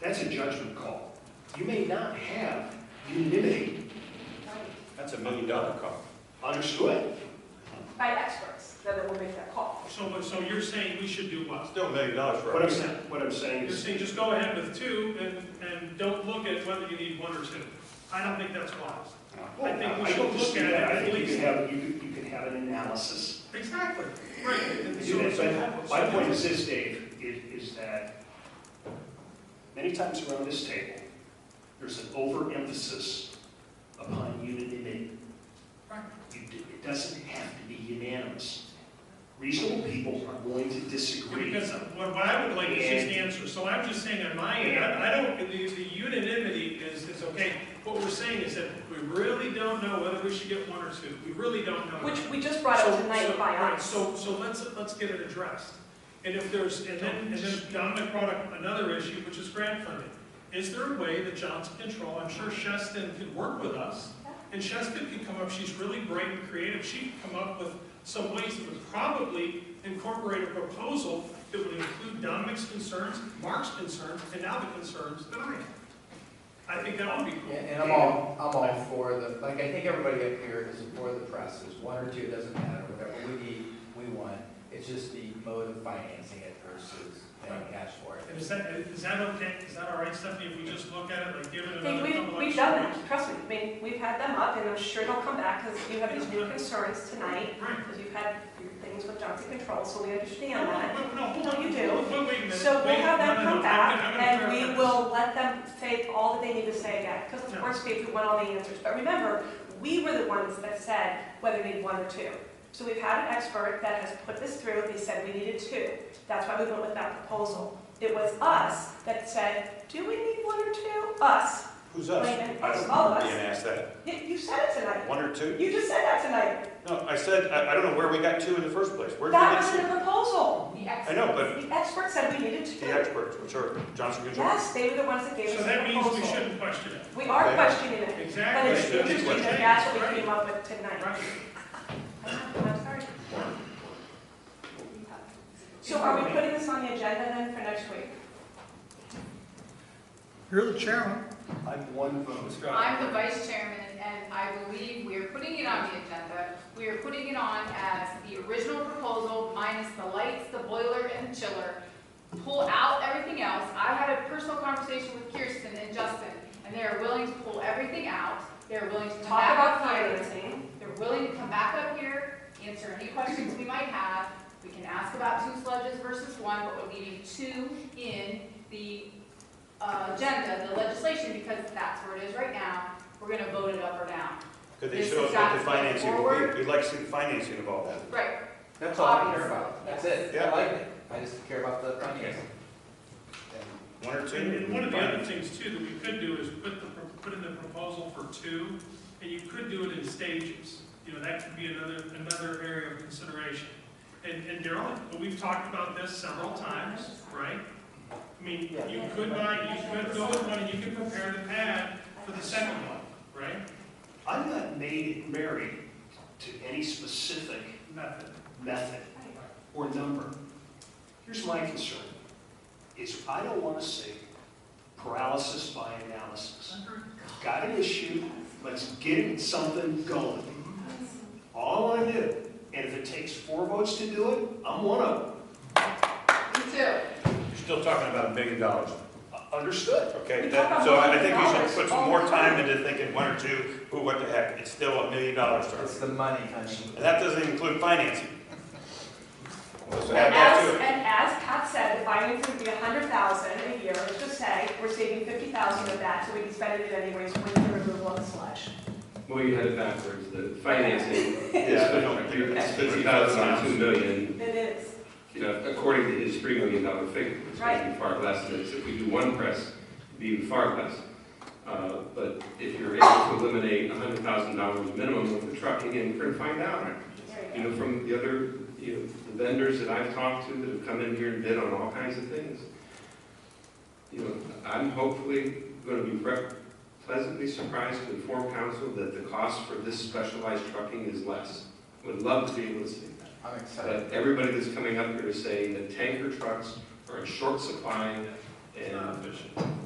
That's a judgment call. You may not have unanimity. That's a million dollar car. Understood? by experts, that it will make that call. So, so you're saying we should do what? Still a million dollars for What I'm a saying, what I'm saying You're is, saying just go ahead with two and, and don't look at whether you need one or two. I don't think that's wise. Well, I think we I should don't look dispute at it that. I at think you least. can have, you could, you could have an analysis Exactly, right. And so- Yeah, so- but My point is this, Dave, is, is that many times around this table, there's an overemphasis upon unanimity. Right. You d- It doesn't have to be unanimous. Reasonable people are going to disagree. Because what what I would like is just the answer, so I'm just saying on my end, I I don't, the the unanimity is, is okay. What we're saying is that we really don't know whether we should get one or two, we really don't know. Which we just brought up So- tonight so- by right, us. So, so let's, let's get it addressed. And if there's, and then, and then Dominic brought up another issue, which is grant funding. Is there a way that Johnson Control, I'm sure Sheston could work with us, and Sheston could come up, she's really bright and creative, she could come up with some ways that would probably incorporate a proposal that would include Dominic's concerns, Mark's concerns, and now the concerns that I have. I think that would be cool. And and I'm all, I'm all for the, like, I think everybody up here is for the process, one or two, it doesn't matter, whatever we need, we want. It's just the mode of financing it versus paying cash for it. And is that, is that okay, is that all right, Stephanie, if we just look at it, like, give it They- another couple We've, extra we've done weeks? that, trust me, I mean, we've had them up, and I'm sure they'll come back, because you have these new concerns tonight, Right. because you've had your things with Johnson Control, so we No, understand that. no, no, hold on. You do. Wait, wait a minute. So we'll Wait, have no, them no, no, come I'm back, gonna- I'm and gonna we clarify will let them say all that they need to say again, because of Yeah. course, Dave, we want all the answers. But remember, we were the ones that said whether they need one or two. So we've had an expert that has put this through, they said we needed two. That's why we went with that proposal. It was us that said, do we need one or two? Us. Who's Like, us? and I us, don't all of remember being us. asked that. You you said it tonight. One or two? You just said that tonight. No, I said, I, I don't know where we got two in the first place. Where did we That was get in the proposal. two? I know, but The expert said we needed two. the experts, which are Johnson Controls. Yes, they were the ones that gave that. us So the that means we proposal. shouldn't question it. We are Okay. questioning it. But Exactly. it's Right, that's interesting what that I'm that's what we came up with tonight. Right. I'm sorry. So are we putting this on the agenda then for next week? You're the chairman. I'm one vote. I'm the vice chairman, and I believe we are putting it on the agenda. We are putting it on as the original proposal minus the lights, the boiler, and the chiller. Pull out everything else. I had a personal conversation with Kirsten and Justin, and they are willing to pull everything out. They're willing to come Talk back about up here. financing. They're willing to come back up here, answer any questions we might have. We can ask about two sledges versus one, but we're leaving two in the uh, agenda, the legislation, because that's where it is right now. We're gonna vote it up or down. Could they This show us is what not the financing would forward. be? We'd like to see the financing of all that. Right. That's all I care about, that's it, I Yeah. like it, I just care about the financing. One or two? And and one of the other things too that we could do is put the, pro- put in the proposal for two, and you could do it in stages. You know, that could be another, another area of consideration. And, and Daryl, we've talked about this several times, right? I mean, you could buy, you could go with one, and you could prepare the pad for the second one, right? I'm not made, married to any specific Method. method or number. Here's my concern, is I don't want to see paralysis by analysis. Got an issue, let's get something going. All I want to do, and if it takes four votes to do it, I'm one of them. Me too. You're still talking about a million dollars. Uh, Understood. Okay, We that, talk so about I think we million should put dollars some all more the time time. into thinking one or two, who, what the heck, it's still a million dollars, sir. It's the money, honey. And that doesn't include financing. Let's And add that as, to it. and as Pat said, the financing would be a hundred thousand a year, let's just say, we're saving fifty thousand of that, so we can spend it anyways with the removal of the sludge. Well, you had it backwards, the financing is Yeah, I don't think that's fifty thousand on two million, It is. you know, according to his three million dollar figure, it's gonna Right. be far less, and it's- if we do one press, it'd be even far less. Uh, but if you're able to eliminate hundred thousand dollars minimum with the trucking, and we're gonna find out, There you go. you know, from the other, you know, the vendors that I've talked to that have come in here and bid on all kinds of things. You know, I'm hopefully gonna be pre- pleasantly surprised to inform council that the cost for this specialized trucking is less. Would love to be able to see that. I'm excited. But everybody that's coming up here is saying that tanker trucks are in short supply It's not and efficient.